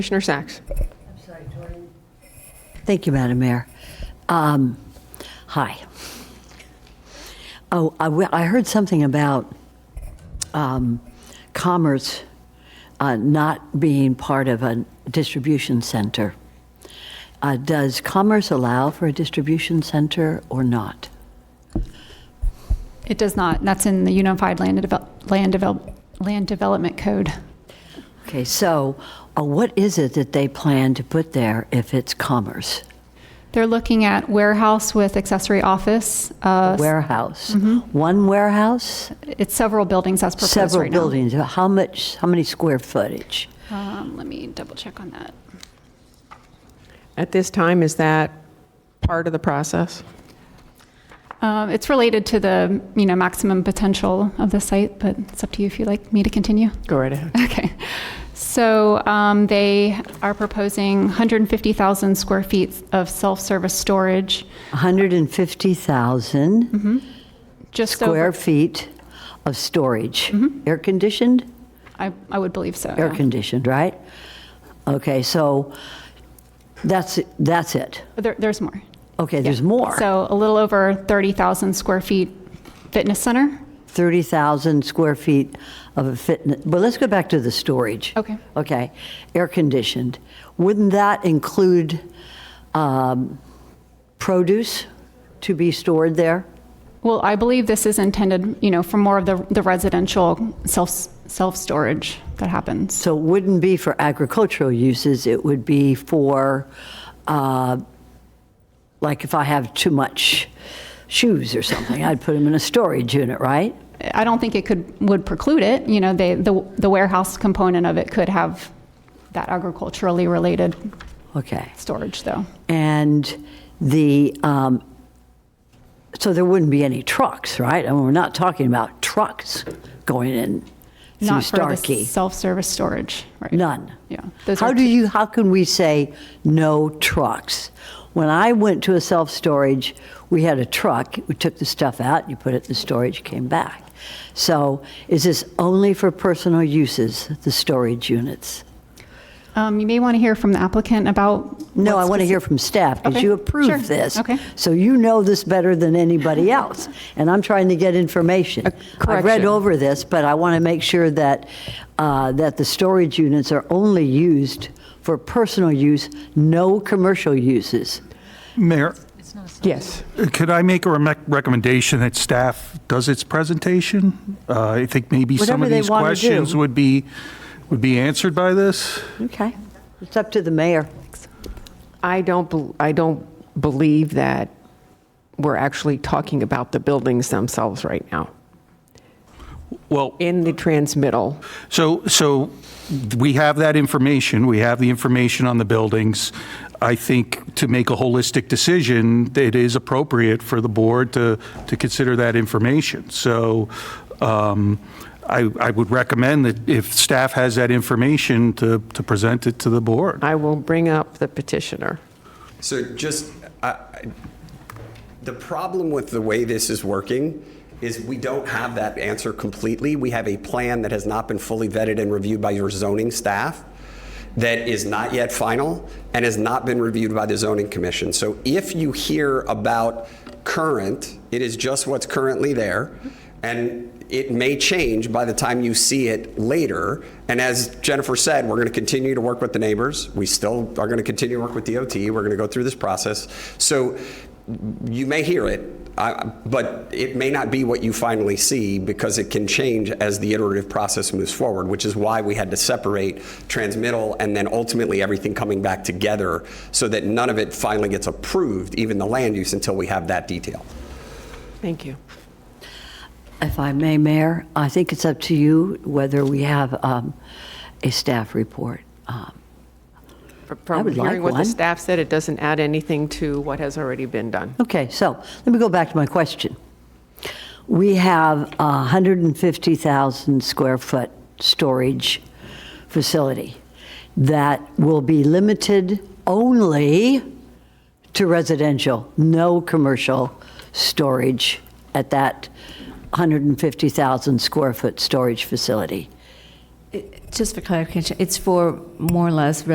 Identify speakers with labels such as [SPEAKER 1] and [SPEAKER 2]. [SPEAKER 1] Commissioner Sacks.
[SPEAKER 2] Thank you, Madam Mayor. Um, Hi. Oh, I w- I heard something about um, commerce uh, not being part of a distribution center. Uh, Does commerce allow for a distribution center or not?
[SPEAKER 3] It does not. and That's in the Unified Land Develop, Land Develop, Land Development Code.
[SPEAKER 2] Okay, so uh, what is it that they plan to put there if it's commerce?
[SPEAKER 3] They're looking at warehouse with accessory office. Uh,
[SPEAKER 2] Warehouse? One warehouse?
[SPEAKER 3] it's several buildings as proposed
[SPEAKER 2] Several
[SPEAKER 3] right now.
[SPEAKER 2] buildings? How much, how many square footage?
[SPEAKER 3] Um, let me double check on that.
[SPEAKER 1] At this time, is that part of the process?
[SPEAKER 3] Um, it's related to the you know maximum potential of the site, but it's up to you if you like me to continue.
[SPEAKER 1] Go right ahead.
[SPEAKER 3] Okay. So um, they are proposing 150,000 square feet of self-service storage.
[SPEAKER 2] 150,000
[SPEAKER 3] Mm-hmm. Just
[SPEAKER 2] square
[SPEAKER 3] over,
[SPEAKER 2] feet of storage. Air-conditioned?
[SPEAKER 3] I, I would believe so. Mm-hmm. yeah.
[SPEAKER 2] Air-conditioned, right? Okay, so that's, it- that's it.
[SPEAKER 3] There, there's more.
[SPEAKER 2] Okay, there's more.
[SPEAKER 3] So a little over 30,000 square feet fitness center.
[SPEAKER 2] 30,000 square feet of a fitness, but let's go back to the storage.
[SPEAKER 3] Okay.
[SPEAKER 2] Okay, air-conditioned. Wouldn't that include um, produce to be stored there?
[SPEAKER 3] Well, I believe this is intended, you know, for more of the, the residential self, self-storage that happens.
[SPEAKER 2] So it wouldn't be for agricultural uses, it would be for, uh, like if I have too much shoes or something, I'd put them in a storage unit, right?
[SPEAKER 3] I don't think it could, would preclude it, you know, they, the, the warehouse component of it could have that agriculturally related
[SPEAKER 2] Okay.
[SPEAKER 3] storage though.
[SPEAKER 2] And the, um, so there wouldn't be any trucks, right? And we're not talking about trucks going in through
[SPEAKER 3] Not for the
[SPEAKER 2] Starkey.
[SPEAKER 3] self-service storage, right?
[SPEAKER 2] None.
[SPEAKER 3] Yeah. Those
[SPEAKER 2] How
[SPEAKER 3] are
[SPEAKER 2] do you, how can we say no trucks? When I went to a self-storage, we had a truck, we took the stuff out, you put it in the storage, came back. So is this only for personal uses, the storage units?
[SPEAKER 3] Um, you may want to hear from the applicant about.
[SPEAKER 2] No,
[SPEAKER 3] what
[SPEAKER 2] I want to
[SPEAKER 3] speci-
[SPEAKER 2] hear from staff, because
[SPEAKER 3] Okay,
[SPEAKER 2] you
[SPEAKER 3] sure,
[SPEAKER 2] approved this.
[SPEAKER 3] okay.
[SPEAKER 2] So you know this better than anybody else, and I'm trying to get information. I've read
[SPEAKER 1] correction.
[SPEAKER 2] over this, but I want to make sure that, uh, that the storage units are only used for personal use, no commercial uses.
[SPEAKER 4] Mayor,
[SPEAKER 1] Yes.
[SPEAKER 4] could I make a rec- recommendation that staff does its presentation? Uh, I think maybe some
[SPEAKER 2] Whatever
[SPEAKER 4] of
[SPEAKER 2] they
[SPEAKER 4] these
[SPEAKER 2] wanna
[SPEAKER 4] questions
[SPEAKER 2] do.
[SPEAKER 4] would be, would be answered by this.
[SPEAKER 2] Okay. It's up to the mayor.
[SPEAKER 1] I don't, bel- I don't believe that we're actually talking about the buildings themselves right now
[SPEAKER 4] Well,
[SPEAKER 1] in the transmittal.
[SPEAKER 4] so, so we have that information, we have the information on the buildings. I think to make a holistic decision, it is appropriate for the board to, to consider that information. So um, I, I would recommend that if staff has that information, to, to present it to the board.
[SPEAKER 1] I will bring up the petitioner.
[SPEAKER 5] So just, I- I- the problem with the way this is working is we don't have that answer completely. We have a plan that has not been fully vetted and reviewed by your zoning staff that is not yet final and has not been reviewed by the zoning commission. So if you hear about current, it is just what's currently there. And it may change by the time you see it later. And as Jennifer said, we're going to continue to work with the neighbors. We still are going to continue to work with DOT. We're going to go through this process. So you may hear it, I- but it may not be what you finally see because it can change as the iterative process moves forward, which is why we had to separate transmittal and then ultimately everything coming back together so that none of it finally gets approved, even the land use, until we have that detail.
[SPEAKER 1] Thank you.
[SPEAKER 2] If I may, Mayor, I think it's up to you whether we have um, a staff report. Um,
[SPEAKER 1] Fr- From
[SPEAKER 2] would like
[SPEAKER 1] hearing what the
[SPEAKER 2] one.
[SPEAKER 1] staff said, it doesn't add anything to what has already been done.
[SPEAKER 2] Okay, so let me go back to my question. We have a 150,000 square foot storage facility that will be limited only to residential, no commercial storage at that 150,000 square foot storage facility.
[SPEAKER 6] Just for clarification, it's for more or less